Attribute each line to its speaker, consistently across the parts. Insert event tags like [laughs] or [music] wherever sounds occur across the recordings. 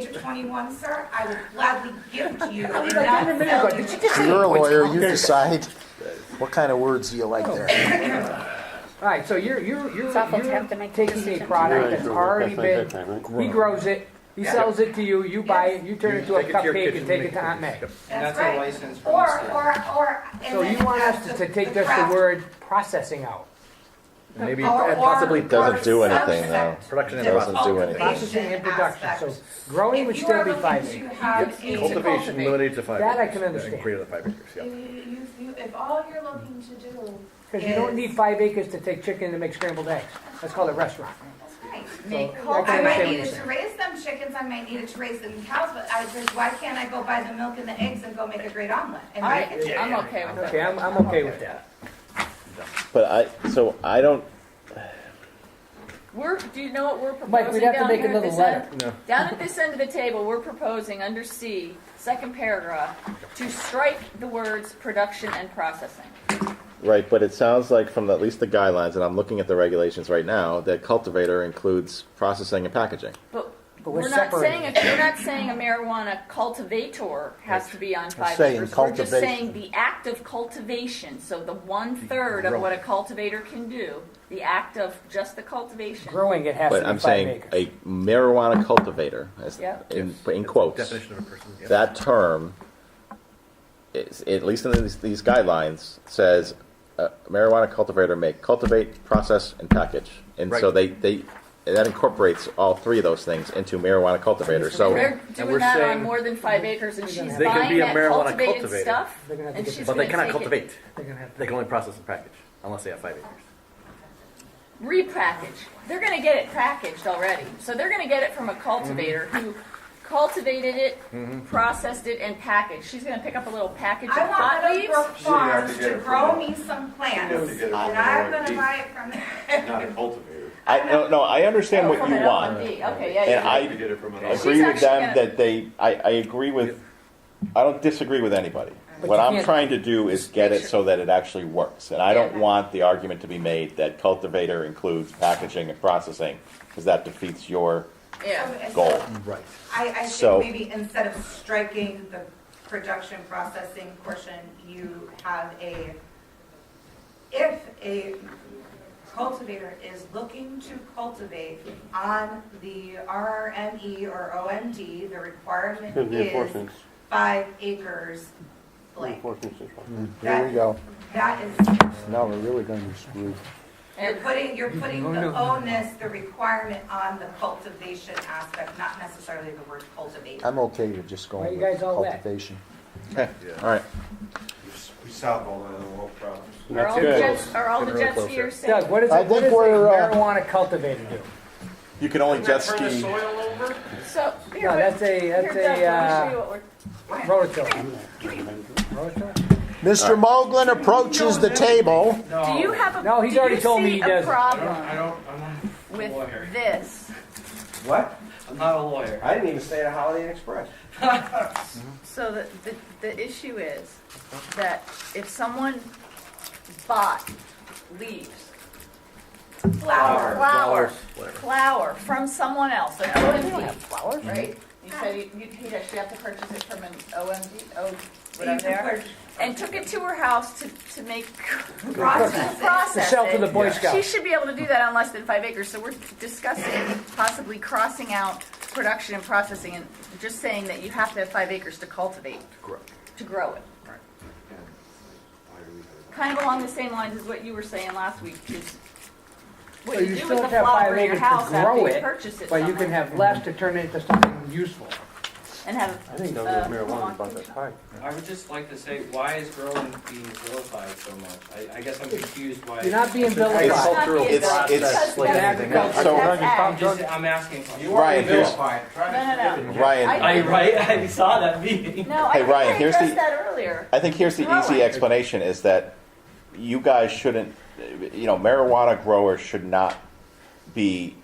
Speaker 1: age of 21, sir, I will gladly gift you.
Speaker 2: was
Speaker 1: not
Speaker 2: like, wait a minute,
Speaker 1: sell
Speaker 2: but
Speaker 1: you.
Speaker 2: did you just say?
Speaker 3: You're a lawyer, you
Speaker 2: Okay.
Speaker 3: decide what kind of words you like
Speaker 2: Oh,
Speaker 3: there.
Speaker 2: All right, so you're, you're, you're,
Speaker 4: awful to have to
Speaker 2: you're
Speaker 4: make a
Speaker 2: taking a
Speaker 4: decision.
Speaker 2: product
Speaker 5: Right,
Speaker 2: that's
Speaker 5: so
Speaker 2: already been,
Speaker 5: that's like that time, right?
Speaker 2: he grows it, he sells it to you, you buy it, you turn it into a
Speaker 6: take it to your
Speaker 2: cupcake
Speaker 6: kitchen
Speaker 2: and
Speaker 6: and
Speaker 2: take it
Speaker 6: make
Speaker 2: to
Speaker 6: it.
Speaker 2: Aunt May.
Speaker 1: That's
Speaker 6: That's a
Speaker 1: right.
Speaker 6: license from
Speaker 1: Or,
Speaker 6: the state.
Speaker 1: or, or. and
Speaker 2: So you
Speaker 1: then
Speaker 2: want us
Speaker 1: the-
Speaker 2: to to take just the
Speaker 1: craft-
Speaker 2: word processing out.
Speaker 7: Maybe
Speaker 1: or-
Speaker 7: it possibly
Speaker 1: or-
Speaker 7: doesn't do
Speaker 1: or
Speaker 7: anything though.
Speaker 1: subset
Speaker 6: Production and
Speaker 1: that's
Speaker 7: doesn't do
Speaker 1: cultivation
Speaker 7: anything.
Speaker 2: Processing and production,
Speaker 1: aspect.
Speaker 2: so growing would
Speaker 1: If you are
Speaker 2: still be
Speaker 1: looking
Speaker 2: five
Speaker 1: to
Speaker 2: acres.
Speaker 1: have a-
Speaker 2: cultivation
Speaker 6: Cultivation
Speaker 2: limited
Speaker 6: limited to five
Speaker 2: That I acres, can uh, understand.
Speaker 6: Greater than five acres,
Speaker 8: You,
Speaker 6: yeah.
Speaker 8: you, you, if all you're looking to do,
Speaker 2: Because you don't
Speaker 1: Yes.
Speaker 2: need five acres to take chicken to make scrambled eggs. That's called a restaurant.
Speaker 1: That's right.
Speaker 2: So I
Speaker 1: I
Speaker 2: can
Speaker 1: might
Speaker 2: understand
Speaker 1: need
Speaker 2: what
Speaker 1: it
Speaker 2: you're
Speaker 1: to
Speaker 2: saying.
Speaker 1: raise them chickens, I might need it to raise them cows, but I just, why can't I go buy the milk and the eggs and go make a great omelet? And
Speaker 4: I,
Speaker 1: make it?
Speaker 4: I'm okay with that.
Speaker 2: Okay, I'm, I'm okay with that.
Speaker 7: But I, so I don't,
Speaker 4: We're, do you know what we're proposing?
Speaker 2: Mike, we'd have to
Speaker 4: down
Speaker 2: make
Speaker 4: here at
Speaker 2: another
Speaker 4: this
Speaker 2: letter.
Speaker 4: end? Down at this end of the table, we're proposing, under C, second paragraph, to strike the words production and processing.
Speaker 7: right, but it sounds like from at least the guidelines, and I'm looking at the regulations right now, that cultivator includes processing and packaging.
Speaker 4: But
Speaker 2: But we're
Speaker 4: we're not saying,
Speaker 2: separating.
Speaker 4: a- we're not saying a marijuana cultivator has to be on five
Speaker 3: saying
Speaker 4: acres. We're just
Speaker 3: cultivation.
Speaker 4: saying the act of cultivation, so the one-third of what a cultivator can do, the act of just the cultivation.
Speaker 2: Growing it has to
Speaker 7: But
Speaker 2: be
Speaker 7: I'm
Speaker 2: five
Speaker 7: saying
Speaker 2: acres.
Speaker 7: a marijuana cultivator, as-
Speaker 4: Yeah.
Speaker 7: in, in quotes.
Speaker 6: Definition of a person, yeah.
Speaker 7: That term, is, at least in these, these guidelines, says uh, marijuana cultivator may cultivate, process, and package. And so
Speaker 6: Right.
Speaker 7: they, they, that incorporates all three of those things into marijuana cultivator, so.
Speaker 4: They're doing
Speaker 6: we're
Speaker 4: that on
Speaker 6: saying-
Speaker 4: more than five acres and she's
Speaker 6: They can
Speaker 4: buying
Speaker 6: be a
Speaker 4: that
Speaker 6: marijuana
Speaker 4: cultivated
Speaker 6: cultivator.
Speaker 4: stuff.
Speaker 2: They're gonna have to
Speaker 4: and
Speaker 2: get
Speaker 4: she's
Speaker 2: the-
Speaker 6: But they
Speaker 4: gonna
Speaker 6: cannot
Speaker 4: take it-
Speaker 6: cultivate.
Speaker 2: They're gonna have to-
Speaker 6: They can only process and package, unless they have five acres.
Speaker 4: repackage. They're going to get it packaged already. So they're going to get it from a cultivator
Speaker 6: Mm-hmm.
Speaker 4: who cultivated it, processed it, and packaged. She's going to pick up a little package
Speaker 1: I
Speaker 4: of pot
Speaker 1: want
Speaker 4: leaves.
Speaker 1: Meadowbrook Farms
Speaker 9: get
Speaker 1: to
Speaker 9: it
Speaker 1: grow
Speaker 9: from-
Speaker 1: me some
Speaker 9: have to
Speaker 1: plants,
Speaker 9: get it
Speaker 1: and
Speaker 9: from the
Speaker 1: I'm gonna
Speaker 9: RD.
Speaker 1: buy it from there.
Speaker 4: [laughs]
Speaker 9: Not a cultivator.
Speaker 7: I, no, no, I understand what
Speaker 4: From
Speaker 7: you
Speaker 4: an
Speaker 7: want.
Speaker 4: LMD. Okay, yeah,
Speaker 7: And
Speaker 4: yeah.
Speaker 9: You
Speaker 7: I
Speaker 9: get it from an.
Speaker 4: She's
Speaker 7: agree with
Speaker 4: actually
Speaker 7: them
Speaker 4: gonna-
Speaker 7: that they, I, I agree with, I don't disagree with anybody.
Speaker 2: But
Speaker 7: What
Speaker 2: you
Speaker 7: I'm
Speaker 2: can't-
Speaker 7: trying to do is get it so that it actually works. And I don't
Speaker 4: Yeah.
Speaker 7: want the argument to be made that cultivator includes packaging and processing, because that defeats your
Speaker 4: yeah.
Speaker 1: So it's-
Speaker 7: goal.
Speaker 6: Right.
Speaker 1: I, I
Speaker 7: So-
Speaker 1: think maybe instead of striking the production processing portion, you have a, if a cultivator is looking to cultivate on the RRME or OMD, the requirement
Speaker 5: Because the
Speaker 1: is
Speaker 5: enforcement,
Speaker 1: five acres blank.
Speaker 5: enforcement is wrong.
Speaker 3: Here we go.
Speaker 1: That is,
Speaker 3: Now we're really gonna be screwed.
Speaker 1: you're putting, you're putting
Speaker 2: Oh,
Speaker 1: the
Speaker 2: no.
Speaker 1: onus, the requirement on the cultivation aspect, not necessarily the word cultivate.
Speaker 3: I'm okay with just
Speaker 2: Why you
Speaker 3: going
Speaker 2: guys
Speaker 3: with
Speaker 2: all wet?
Speaker 3: cultivation.
Speaker 7: All right.
Speaker 9: We solve all the world problems.
Speaker 4: Are all, the
Speaker 5: good.
Speaker 4: jets, are all the
Speaker 6: Getting real
Speaker 4: jet
Speaker 6: close here.
Speaker 4: skiers
Speaker 2: Doug,
Speaker 4: saying?
Speaker 2: what is
Speaker 3: I
Speaker 2: it, what
Speaker 3: think
Speaker 2: does a
Speaker 3: we're, uh,
Speaker 2: marijuana cultivator do?
Speaker 7: You can only jet ski.
Speaker 4: So, here,
Speaker 2: No,
Speaker 4: wait-
Speaker 2: that's a-
Speaker 4: here,
Speaker 2: that's a,
Speaker 4: Doug, let me
Speaker 2: uh,
Speaker 4: show you what we're
Speaker 2: Rototiller. Rototiller?
Speaker 3: Mr. Moglen approaches the table.
Speaker 4: Do you have a?
Speaker 2: No, he's
Speaker 4: do you
Speaker 2: already told me
Speaker 4: see
Speaker 2: he
Speaker 4: a
Speaker 2: doesn't.
Speaker 4: problem
Speaker 6: don't, I'm not a
Speaker 4: with this.
Speaker 6: What? I'm not a lawyer. I didn't even stay at a Holiday Inn Express.
Speaker 4: So the, the, the issue is that if someone bought leaves,
Speaker 1: Flower.
Speaker 4: flowers,
Speaker 6: Whatever.
Speaker 4: flower from someone else, an
Speaker 2: We don't
Speaker 4: OMD,
Speaker 2: have flowers.
Speaker 4: right? You said you, you, you'd actually have to purchase it from an OMD, oh,
Speaker 1: You
Speaker 4: whatever they are,
Speaker 1: can
Speaker 4: and took it to her house to, to make,
Speaker 1: Process it.
Speaker 2: To
Speaker 4: process
Speaker 2: sell to the
Speaker 4: it.
Speaker 2: Boy
Speaker 4: She
Speaker 2: Scouts.
Speaker 4: should be able to do that on less than five acres, so we're discussing possibly crossing out production and processing and just saying that you have to have five acres to cultivate,
Speaker 6: Grow.
Speaker 4: to grow it. Kind of along the same lines as what you were saying last week, is what
Speaker 2: So
Speaker 4: you
Speaker 2: you
Speaker 4: do
Speaker 2: still have
Speaker 4: with the
Speaker 2: to have five
Speaker 4: flower in your
Speaker 2: acres
Speaker 4: house
Speaker 2: to grow
Speaker 4: after you
Speaker 2: it,
Speaker 4: purchase it
Speaker 2: but you can
Speaker 4: somewhere
Speaker 2: have less to turn it into something useful.
Speaker 4: and have.
Speaker 5: I think those
Speaker 4: uh,
Speaker 5: are marijuana,
Speaker 4: Milwaukee.
Speaker 5: but that's high.
Speaker 10: I would just like to say, why is growing being vilified so much? I, I guess I'm confused why.
Speaker 2: You're not being
Speaker 4: It's
Speaker 2: vilified.
Speaker 4: not
Speaker 5: Cultural
Speaker 4: being
Speaker 7: It's-
Speaker 4: done.
Speaker 7: it's-
Speaker 4: Because
Speaker 5: like
Speaker 4: that's-
Speaker 5: anything else.
Speaker 4: that's
Speaker 7: So-
Speaker 4: ag.
Speaker 10: I'm just, I'm asking. You
Speaker 7: Ryan, here's,
Speaker 4: No, no, no.
Speaker 7: Ryan,
Speaker 10: I, right, [laughs] I saw that meeting.
Speaker 4: No, I
Speaker 7: Hey,
Speaker 4: think
Speaker 7: Ryan,
Speaker 4: I
Speaker 7: here's the-
Speaker 4: addressed that earlier.
Speaker 7: I think here's the easy explanation is that you guys shouldn't, you know, marijuana growers should not be,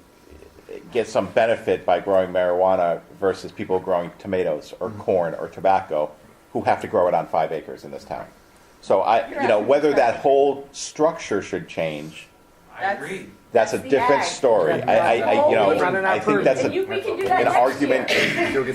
Speaker 7: get some benefit by growing marijuana versus people growing tomatoes or
Speaker 4: Mm-hmm.
Speaker 7: corn or tobacco who have to grow it on five acres in this town. So I, you know, whether that whole structure should change
Speaker 10: I
Speaker 4: That's-
Speaker 10: agree.
Speaker 7: That's a
Speaker 4: That's the
Speaker 7: different
Speaker 4: ag.
Speaker 7: story. I, I, I, you know,
Speaker 4: Rather
Speaker 2: not
Speaker 7: I think
Speaker 2: prove it.
Speaker 7: that's
Speaker 4: And
Speaker 7: a,
Speaker 4: you, we can do that
Speaker 7: an
Speaker 4: next year.
Speaker 7: argument.
Speaker 9: You'll get